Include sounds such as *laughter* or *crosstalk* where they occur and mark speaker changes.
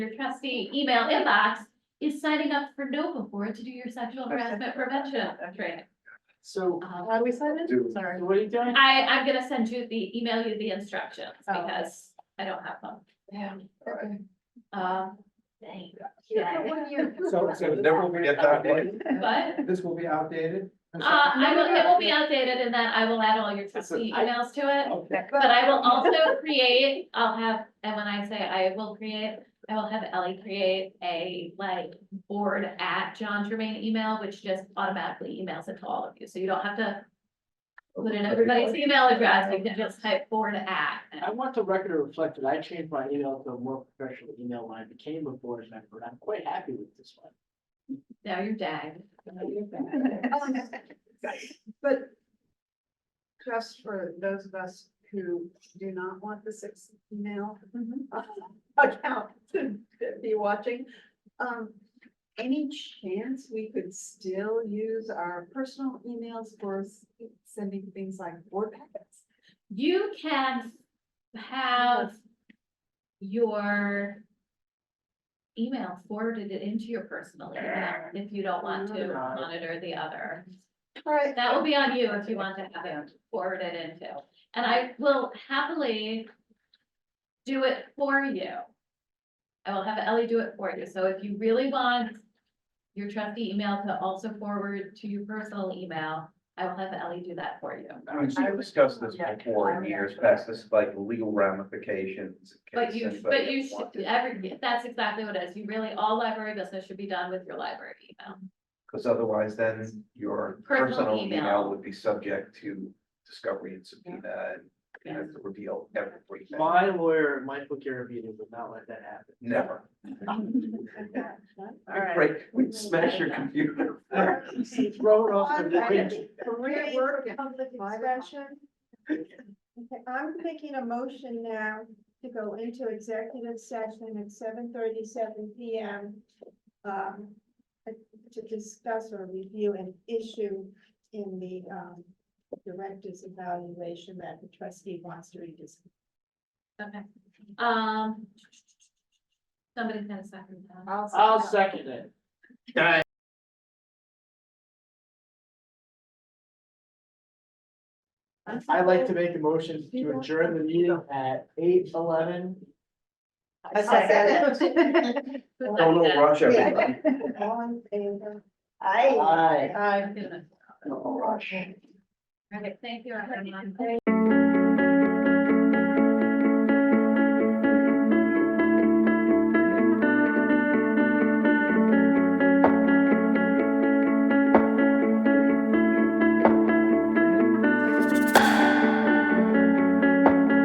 Speaker 1: your trustee email inbox is signing up for NOVA board to do your sexual harassment prevention training.
Speaker 2: So
Speaker 1: Um,
Speaker 3: How do we sign
Speaker 2: Do-
Speaker 3: in? Sorry.
Speaker 2: what are you doing?
Speaker 1: I, I'm gonna send you the, email you the instructions
Speaker 3: Oh.
Speaker 1: because I don't have them.
Speaker 3: Yeah.
Speaker 1: Um,
Speaker 4: *laughs* So, so this will be, outdated.
Speaker 1: but,
Speaker 4: *laughs*
Speaker 1: uh,
Speaker 4: this will be outdated? Uh,
Speaker 1: I will, it will be outdated and then I will add all your trustee emails to it.
Speaker 2: Okay.
Speaker 1: But I will also create, I'll have, and when I say I will create, I will have Ellie create a like board at John Germain email, which just automatically emails it to all of you. So you don't have to put in everybody's email address. You can just type board at.
Speaker 2: I want the record to reflect that I changed my email to a more professional email when I became a board member, and I'm quite happy with this one.
Speaker 1: Now you're dead.
Speaker 3: But just for those of us who do not want the sixth email Mm-hmm. account to be watching, um, any chance we could still use our personal emails for s- sending things like board packets?
Speaker 1: You can have your email forwarded it into your personal email if you don't want to monitor the other.
Speaker 3: All right.
Speaker 1: That will be on you if you want to have it forwarded into, and I will happily do it for you. I will have Ellie do it for you, so if you really want your trustee email to also forward to your personal email, I will have Ellie do that for you.
Speaker 4: I mean, we've discussed this before in years past, this is like legal ramifications. in
Speaker 1: But
Speaker 4: case
Speaker 1: you,
Speaker 4: anybody
Speaker 1: but you
Speaker 4: wanted-
Speaker 1: should, every, that's exactly what it is, you really, all library business should be done with your library email.
Speaker 4: Because otherwise then your
Speaker 1: Personal
Speaker 4: personal
Speaker 1: email.
Speaker 4: email would be subject to discovery and subpoena and you have to reveal everything.
Speaker 2: My lawyer, Michael Garavito, would not let that happen.
Speaker 4: *laughs* Never.
Speaker 3: All right.
Speaker 4: Right, we'd smash your computer.
Speaker 2: *laughs* Throw it off the bridge.
Speaker 3: Career
Speaker 5: Great
Speaker 3: work.
Speaker 5: work, public
Speaker 3: Five o'clock.
Speaker 5: extension. Okay, I'm making a motion now to go into executive session at seven thirty-seven P M. Um, to discuss or review an issue in the, um, director's evaluation that the trustee wants to rediscuss.
Speaker 1: Okay, um. Somebody's gonna second that.
Speaker 2: I'll second it. I'd like to make a motion to adjourn the meeting at eight eleven.
Speaker 3: I
Speaker 1: *laughs*
Speaker 3: *laughs* second
Speaker 2: Oh,
Speaker 1: Who
Speaker 4: Don't
Speaker 1: seconded it?
Speaker 4: rush everybody.
Speaker 5: *laughs* All in favor?
Speaker 3: Aye.
Speaker 2: Aye.
Speaker 1: All right, thank you, everyone.
Speaker 5: Aye.